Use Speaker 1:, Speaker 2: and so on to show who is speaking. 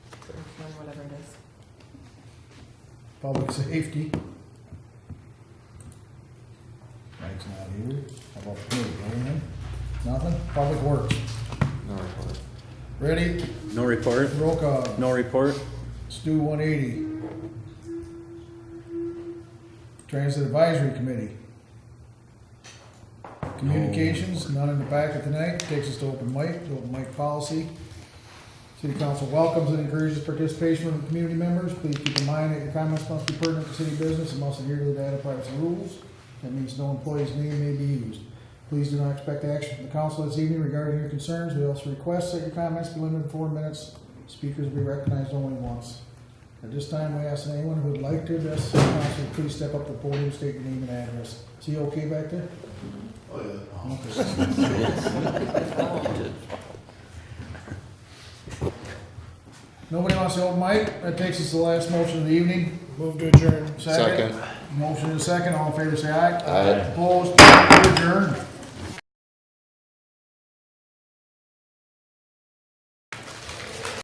Speaker 1: or whatever it is.
Speaker 2: Public safety,
Speaker 3: Mike's not here. How about me, Brian?
Speaker 2: nothing. Public works.
Speaker 4: No report.
Speaker 2: Ready?
Speaker 4: No report?
Speaker 2: Roll call.
Speaker 4: No report?
Speaker 2: Stu one eighty. Transit Advisory Committee. Communications, none in the packet tonight, takes us to open mic, to open mic policy. City Council welcomes and encourages participation from community members, please keep in mind that your comments must be pertinent to city business and must adhere to the data privacy rules. That means no employee's name may be used. Please do not expect action from the council this evening regarding your concerns, we also request that your comments be limited to four minutes Speakers will be recognized only once. At this time, we ask anyone who would like to address the council, please step up to the podium, state your name and address. Is he okay back there? Oh, yeah. Nobody wants to open mic? That takes us to the last motion of the evening. Move to adjourn. Second. Motion and second, all in favor, say aye.
Speaker 4: Aye.
Speaker 2: Opposed, adjourned.